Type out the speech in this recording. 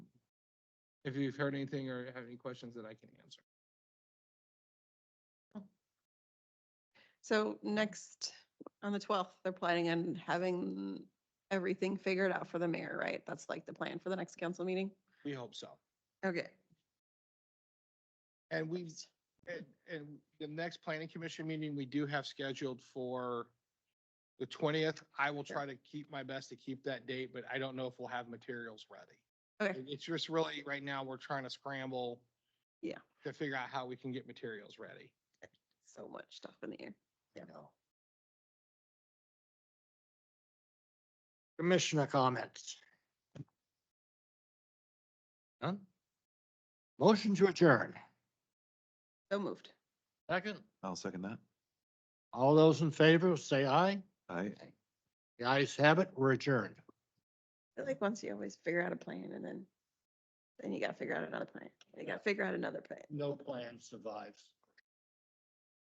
if you've heard anything or have any questions that I can answer. So next, on the twelfth, they're planning on having everything figured out for the mayor, right? That's like the plan for the next council meeting? We hope so. Okay. And we, and, and the next planning commission meeting we do have scheduled for the twentieth. I will try to keep my best to keep that date, but I don't know if we'll have materials ready. Okay, It- It's just really, right now, we're trying to scramble. Yeah. To figure out how we can get materials ready. so much stuff in the air. you know. Commissioner comments? None? Motion to adjourn. So moved. Second. I'll second that. All those in favor, say aye. Aye. The ayes have it. We're adjourned. I like once you always figure out a plan and then, then you gotta figure out another plan. You gotta figure out another plan. No plan survives.